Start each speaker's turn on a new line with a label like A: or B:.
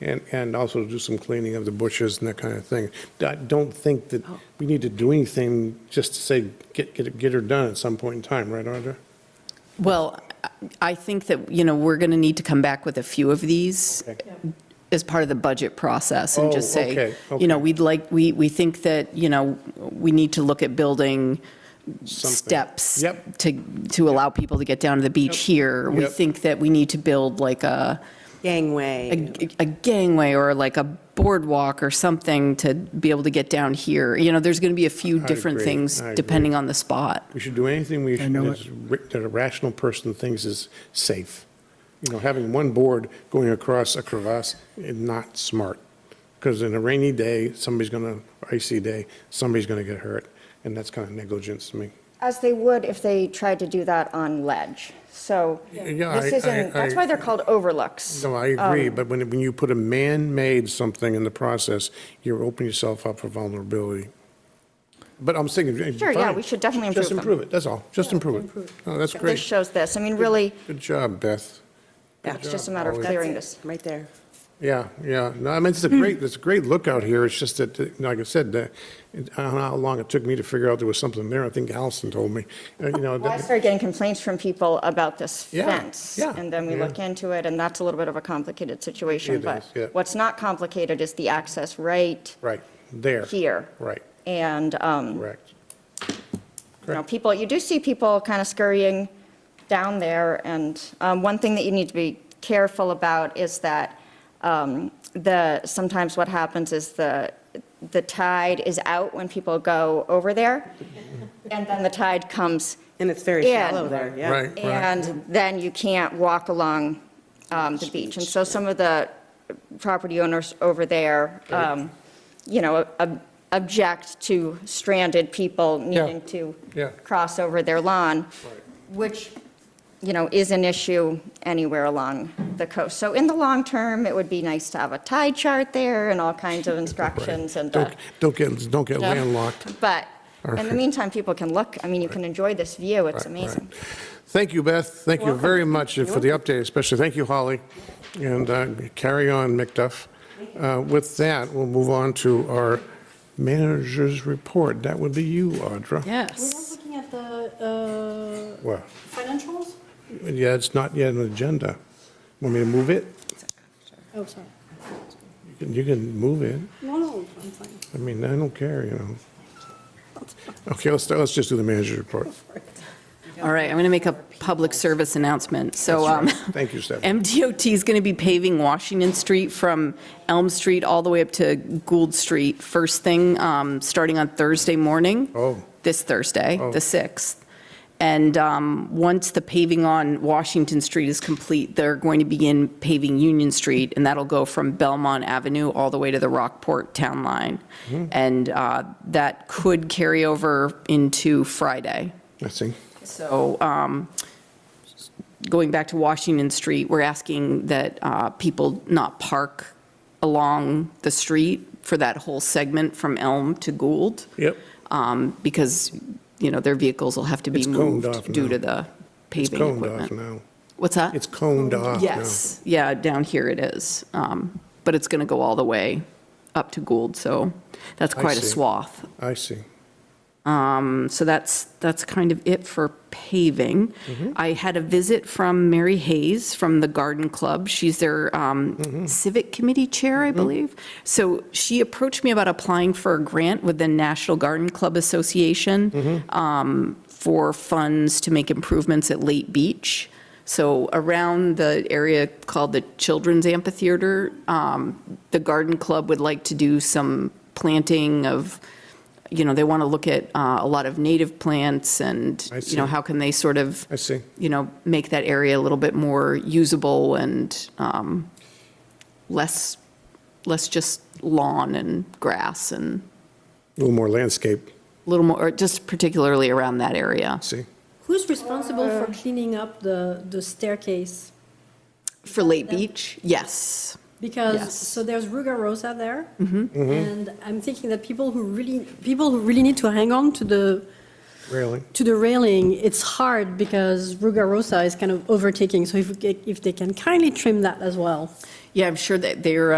A: and, and also do some cleaning of the bushes and that kind of thing. I don't think that we need to do anything just to say, get, get, it- get her done at some point in time, right, Audra?
B: Well, I- I think that, you know, we're going to need to come back with a few of these
A: Okay.
B: as part of the budget process and just
A: Oh, okay,
B: say, you know,
A: okay.
B: we'd like, we, we think that, you know, we need to look at building
A: Something.
B: steps
A: Yep,
B: to, to allow people to get down to the beach here. We
A: Yep.
B: think that we need to build like a,
C: gangway.
B: a a gangway or like a boardwalk or something to be able to get down here. You know, there's going to be a few
A: I
B: different
A: agree,
B: things
A: I agree.
B: depending on the spot.
A: we should do anything we, should-
D: know
A: that's ra- that a rational person thinks is safe. You know, having one board going across a crevasse is not smart, because in a rainy day, somebody's gonna, icy day, somebody's gonna get hurt, and that's kind of negligence to me.
E: As they would if they tried to do that on ledge. So
A: Yeah,
E: this
A: I-
E: isn't,
A: I-
E: that's
A: I-
E: why they're called overlooks. Um,
A: No, I agree, but when, when you put a man-made something in the process, you're opening yourself up for vulnerability. But I'm thinking, eh,
E: Sure, yeah,
A: fine.
E: we should definitely
A: Just
E: improve them.
A: improve it, that's all, just improve it. Oh, that's
E: This
A: great,
E: shows this. I mean, really,
A: good job, Beth.
E: it's just a matter of
A: Always.
E: clearing this.
C: Right there.
A: Yeah, yeah, no, I mean, it's a great, it's a great lookout here, it's just that, eh, like I said, that, I don't know how long it took me to figure out there was something there, I think Allison told me, Uh, you know.
E: Well, I
A: that-
E: started getting complaints from people about this
A: Yeah,
E: fence.
A: yeah,
E: And then we
A: yeah.
E: look into it, and that's a little bit of a complicated situation.
A: It
E: But
A: is, yeah.
E: what's not complicated is the access right
A: Right, there.
E: here.
A: Right,
E: And, um,
A: correct.
E: you know,
A: Correct.
E: people, you do see people kind of scurrying down there, and um, one thing that you need to be careful about is that um, the, sometimes what happens is the, the tide is out when people go over there, and then the tide comes,
C: And it's very
E: Yeah.
C: shallow there, yeah.
A: Right, right,
E: and then you can't walk along um, the beach. And so some of the property owners over there, um, you know, ob- object to stranded people needing to
A: Yeah.
E: cross over their lawn, which, you know, is an issue anywhere along the coast. So in the long term, it would be nice to have a tide chart there and all kinds of instructions and. uh,
A: don't, don't get, don't get
E: yeah.
A: landlocked.
E: But in the meantime, people can look, I mean, you can enjoy this view, it's
A: Right, right.
E: amazing.
A: Thank you, Beth. Thank you very much for the update, especially. Thank you, Holly. And uh, carry on, McDuff. Uh, With that, we'll move on to our manager's report. That would be you, Audra.
F: We're
B: Yes.
F: not looking at the uh,
A: Well,
F: financials?
A: yeah, it's not yet an agenda. Want me to move it?
F: Oh, sorry.
A: You can- You can move it.
F: No, no, I'm fine.
A: I mean, I don't care, you know. Okay, let's, let's just do the manager's report.
B: All right, I'm going to make a public service announcement. So um,
A: Thank you, Stephanie.
B: MDOT is going to be paving Washington Street from Elm Street all the way up to Gould Street, first thing, um, starting on Thursday morning.
A: Oh.
B: This Thursday, the 6th. And um, once the paving on Washington Street is complete, they're going to begin paving Union Street, and that'll go from Belmont Avenue all the way to the Rockport Town Line. And uh, that could carry over into Friday.
A: I see.
B: So um, going back to Washington Street, we're asking that uh, people not park along the street for that whole segment from Elm to Gould.
A: Yep.
B: um, Because, you know, their vehicles will have to be
A: It's coned off
B: moved due
A: now.
B: to the
A: It's
B: paving
A: coned off
B: equipment.
A: now.
B: What's that?
A: It's coned off now.
B: Yes, yeah, down here it is. Um, But it's going to go all the way up to Gould, so that's
A: I
B: quite a
A: see.
B: swath.
A: I see.
B: Um, So that's, that's kind of it for paving. I had a visit from Mary Hayes from the Garden Club. She's their um, civic committee chair, I believe. So she approached me about applying for a grant with the National Garden Club Association um, for funds to make improvements at Lake Beach. So around the area called the Children's Amphitheater, um, the Garden Club would like to do some planting of, you know, they want to look at uh, a lot of native plants and,
A: I
B: you know,
A: see.
B: how can they sort of,
A: I see.
B: you know, make that area a little bit more usable and um, less, less just lawn and grass and
A: A little more landscape,
B: a little more, or just particularly around that area.
A: see?
F: Who's responsible for cleaning up the, the staircase?
B: For Late Beach, yes.
F: Because,
B: Yes.
F: so there's Ruga Rosa there. And I'm thinking that people who really, people who really need to hang on to the,
A: Railing.
F: to the railing, it's hard because Ruga Rosa is kind of overtaking. So if, we get- if they can kindly trim that as well.
B: Yeah, I'm sure that they're